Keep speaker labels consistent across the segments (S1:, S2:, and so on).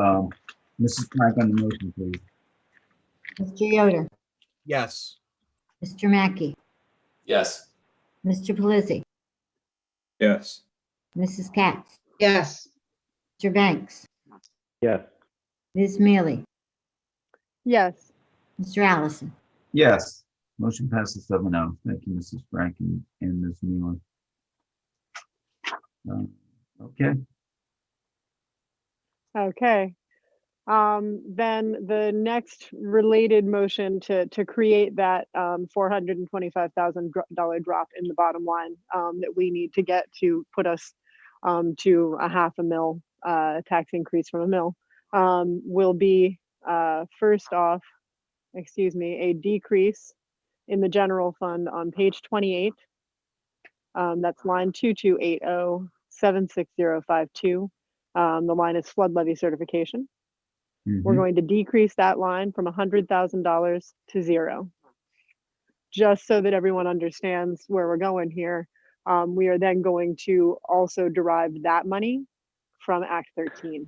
S1: Um, Mrs. Clark on the motion, please.
S2: Mr. Yoder,
S3: Yes.
S2: Mr. Mackey,
S4: Yes.
S2: Mr. Pelisi,
S5: Yes.
S2: Mrs. Katz,
S6: yes,
S2: Mr. Banks,
S7: yes,
S2: Ms. Mealy,
S8: yes,
S2: Mr. Allison.
S1: Yes. Motion passes seven oh. Thank you, Mrs. Bracken and Ms. Mueller. Um, Okay,
S8: okay. Um, then the next related motion to, to create that, um, four hundred and twenty-five thousand dollar drop in the bottom line, um, that we need to get to put us, um, to a half a mil, uh, tax increase from a mil, um, will be, uh, first off, excuse me, a decrease in the general fund on page twenty-eight. Um, that's line oh, two-two-eight-oh-seven-six-zero-five-two. Um, the line is flood levy certification. We're
S1: Mhm.
S8: going to decrease that line from hundred thousand dollars to zero. Just so that everyone understands where we're going here. Um, we are then going to also derive that money from Act thirteen.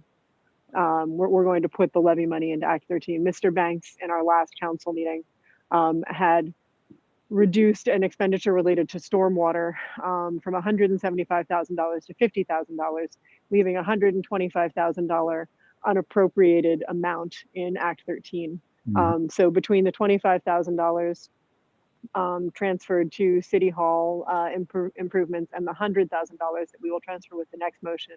S8: Um, we're, we're going to put the levy money into Act thirteen. Mr. Banks in our last council meeting, um, had reduced an expenditure related to stormwater, um, from hundred and seventy-five thousand dollars to fifty thousand dollars, leaving a hundred and twenty-five thousand dollar unappropriated amount in Act 13.
S1: Mhm.
S8: Um, so between the $25,000 um, transferred to City Hall uh, impro- improvements and the $100,000 that we will transfer with the next motion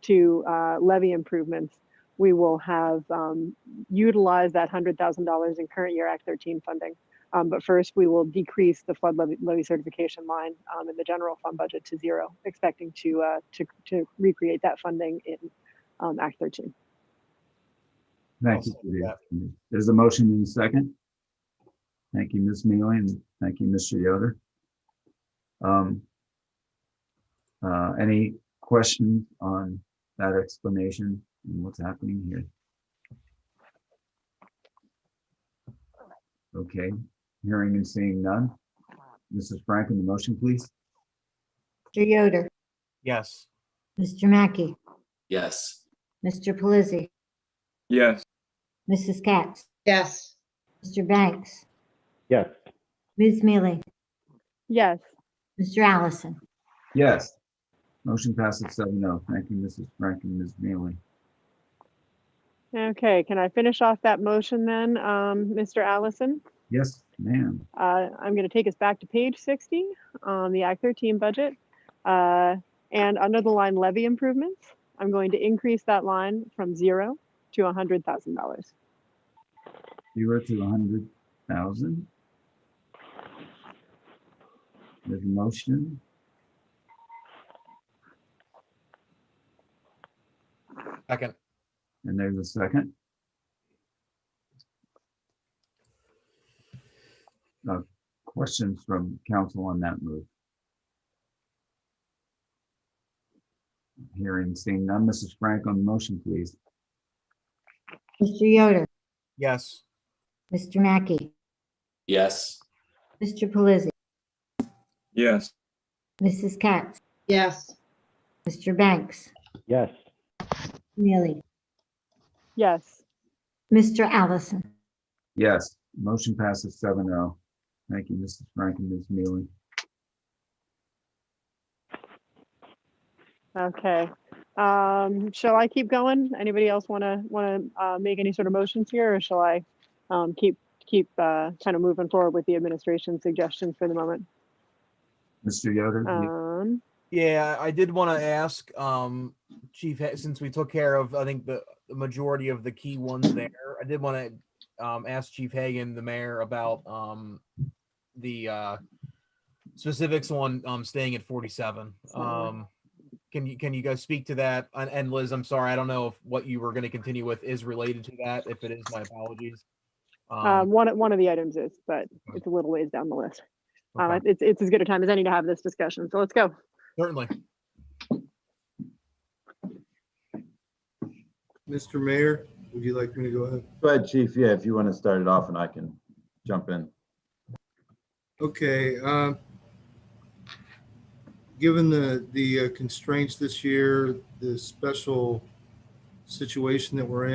S8: to uh, levy improvements, we will have um, utilized that $100,000 in current year Act 13 funding. Um, but first, we will decrease the flood levy, levy certification line um, in the general fund budget to zero, expecting to uh, to, to recreate that funding in um, Act 13.
S1: Thank you.
S3: I'll
S1: Judy. There's a motion in a second. Thank you, Ms. Mealy, and thank you, Mr. Yoder. Um, uh, Any questions on that explanation and what's happening here? Okay, hearing and seeing none. Mrs. Franklin, the motion, please.
S2: Mr. Yoder,
S3: Yes.
S2: Mr. Mackey,
S4: Yes.
S2: Mr. Pelisi,
S5: Yes.
S2: Mrs. Katz,
S6: yes,
S2: Mr. Banks,
S7: yes,
S2: Ms. Mealy,
S8: Yes,
S2: Mr. Allison.
S1: Yes. Motion passes seven oh. Thank you, Mrs. Franklin, Ms. Mealy.
S8: okay, can I finish off that motion then, um, Mr. Allison?
S1: Yes, ma'am.
S8: Uh, I'm going to take us back to page 60 on the Act 13 budget. Uh, and under the line levy improvements, I'm going to increase that line from zero to $100,000.
S1: Zero to a hundred thousand. There's a motion.
S3: Second.
S1: And there's a second. Uh, Questions from council on that move? Hearing, seeing none. Mrs. Frank on the motion, please.
S2: Mr. Yoder,
S3: Yes.
S2: Mr. Mackey,
S4: Yes.
S2: Mr. Pelisi,
S5: Yes.
S2: Mrs. Katz,
S6: yes,
S2: Mr. Banks,
S7: yes,
S2: Neely,
S8: Yes,
S2: Mr. Allison.
S1: Yes, motion passes seven oh. Thank you, Mrs. Frank and Ms. Mealy.
S8: okay. Um, shall I keep going? Anybody else want to, want to, uh, make any sort of motions here or shall I, um, keep, keep, uh, kind of moving forward with the administration suggestions for the moment?
S1: Mr. Yoder? you-
S8: Um,
S3: Yeah, I did want to ask, um, Chief, Ha- since we took care of, I think the, the majority of the key ones there, I did want to, um, ask Chief Hagan, the mayor, about, um, the, uh, specifics on, um, staying at forty-seven. Um, can you, can you guys speak to that? And, and Liz, I'm sorry, I don't know if what you were going to continue with is related to that. If it is, my apologies.
S8: Um,
S3: Um,
S8: one, of- one of the items is, but it's a little ways down the list. Um,
S3: okay,
S8: it's, it's as good a time as any to have this discussion, so let's go.
S3: Certainly.
S9: Mr. Mayor, would you like me to go ahead?
S5: Go ahead, chief. Yeah, if you want to start it off and I can jump in.
S9: Okay, um, given the, the uh, constraints this year, the special situation that we're in.